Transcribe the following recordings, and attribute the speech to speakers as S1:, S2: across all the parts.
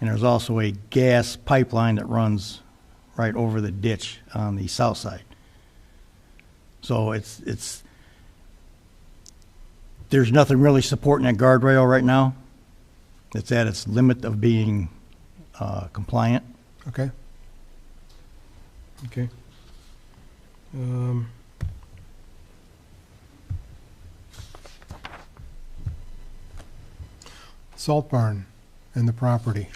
S1: And there's also a gas pipeline that runs right over the ditch on the south side. So it's, it's, there's nothing really supporting that guardrail right now. It's at its limit of being uh, compliant.
S2: Okay. Okay. Um, Salt barn and the property.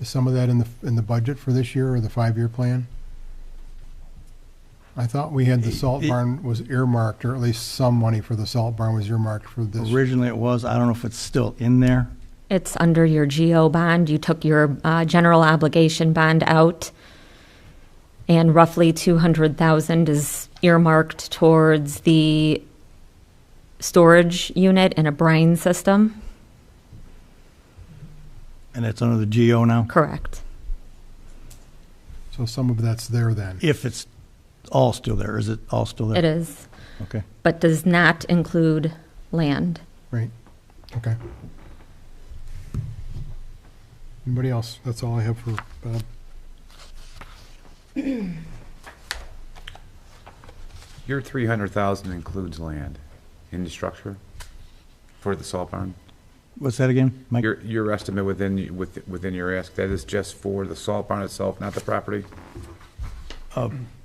S2: Is some of that in the, in the budget for this year or the five-year plan? I thought we had the salt
S1: It- it-
S2: barn was earmarked, or at least some money for the salt barn was earmarked for this.
S1: Originally it was, I don't know if it's still in there.
S3: It's under your GO bond. You took your uh, general obligation bond out, and roughly 200,000 is earmarked towards the storage unit and a brine system.
S1: And it's under the GO now,
S3: Correct.
S2: So some of that's there then.
S1: if it's all still there. Is it all still there?
S3: It is,
S1: Okay.
S3: but does not include land.
S2: Right, okay. Anybody else? That's all I have for uh, Bob.
S4: Your three hundred thousand includes land in the structure for the salt barn?
S1: What's that again? Mike?
S4: Your, your estimate within, with- within your ask, that is just for the salt barn itself, not the property?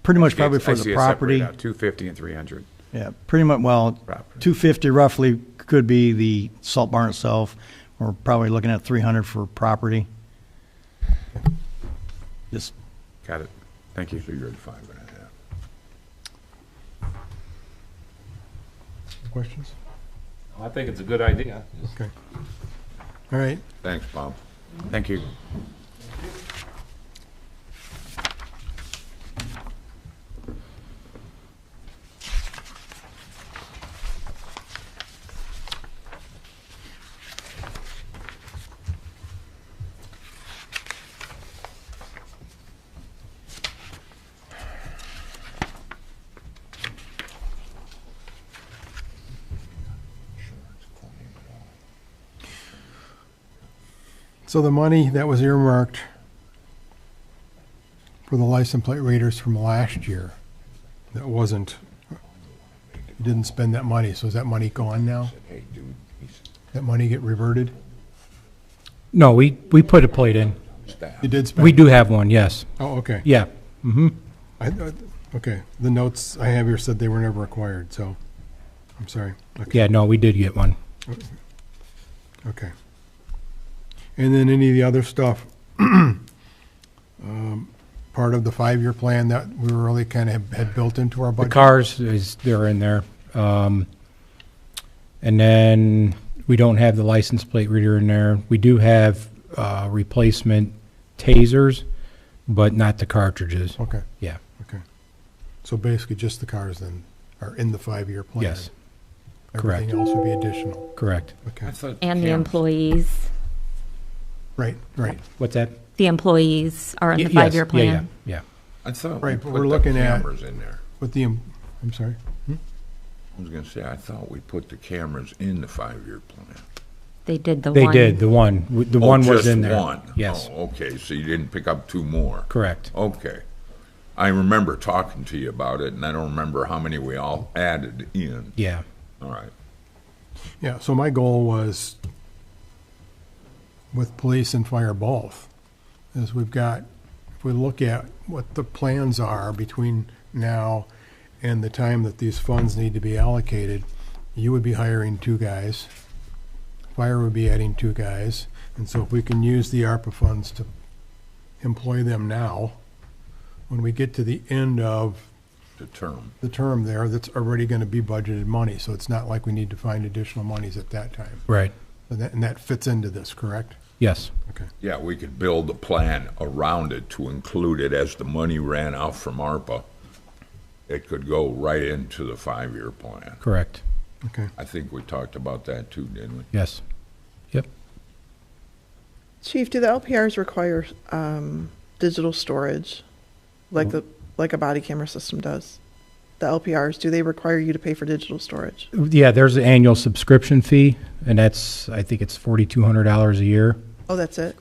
S1: Pretty much probably
S4: I
S1: for
S4: see
S1: the
S4: it
S1: property.
S4: separated out, two fifty and three hundred.
S1: Yeah, pretty much, well,
S4: Property.
S1: two fifty roughly could be the salt barn itself. We're probably looking at three hundred for property. Just,
S4: Got it. Thank you.
S2: Questions?
S5: I think it's a good idea.
S2: Okay. All right,
S4: Thanks, Bob. Thank you.
S2: so the money that was earmarked for the license plate readers from last year, that wasn't, you didn't spend that money, so is that money gone now? That money get reverted?
S6: No, we, we put a plate in.
S2: You did spend?
S6: We do have one, yes.
S2: Oh, okay.
S6: Yeah. hmm
S2: I, I- okay, the notes I have here said they were never acquired, so, I'm sorry. Okay.
S6: Yeah, no, we did get one.
S2: Okay. And then any of the other stuff, um, part of the five-year plan that we were really kind of had built into our
S6: The
S2: budget?
S6: cars is, they're in there. Um, and then we don't have the license plate reader in there. We do have, uh, replacement tasers, but not the cartridges.
S2: Okay,
S6: Yeah,
S2: okay. So basically, just the cars then are in the five-year plan?
S6: yes,
S2: Everything else would be additional,
S6: correct.
S2: okay.
S3: And the employees,
S2: Right, right,
S6: What's that?
S3: the employees are in the
S6: Ye- yes,
S3: five-year
S6: yeah,
S3: plan.
S6: Yeah, yeah.
S7: I thought we
S2: Right, but
S7: put
S2: we're
S7: the
S2: looking at-
S7: cameras in there.
S2: with the, em- I'm sorry,
S7: I was gonna say, I thought we put the cameras in the five-year plan.
S3: They did the
S6: They
S3: one.
S6: did, the one, W- the
S7: Oh,
S6: one was
S7: just
S6: in there.
S7: one.
S6: Yes,
S7: Oh, okay, so you didn't pick up two more.
S6: correct.
S7: Okay. I remember talking to you about it, and I don't remember how many we all added in.
S6: Yeah.
S7: All right.
S2: yeah, so my goal was with police and fire both, is we've got, if we look at what the plans are between now and the time that these funds need to be allocated, you would be hiring two guys, fire would be adding two guys, and so if we can use the ARPA funds to employ them now, when we get to the end of
S7: The term.
S2: the term there, that's already gonna be budgeted money, so it's not like we need to find additional monies at that time.
S6: Right.
S2: And that, and that fits into this, correct?
S6: Yes.
S2: Okay.
S7: Yeah, we could build a plan around it to include it as the money ran out from ARPA. It could go right into the five-year plan.
S6: Correct.
S2: Okay.
S7: I think we talked about that too, didn't we?
S6: Yes. Yep.
S8: Chief, do the LPRs require um, digital storage, like the like a body camera system does? The LPRs do they require you to pay for digital storage?
S6: Yeah, there's an annual subscription fee, and that's, I think it's forty-two hundred dollars a year.
S8: Oh, that's it.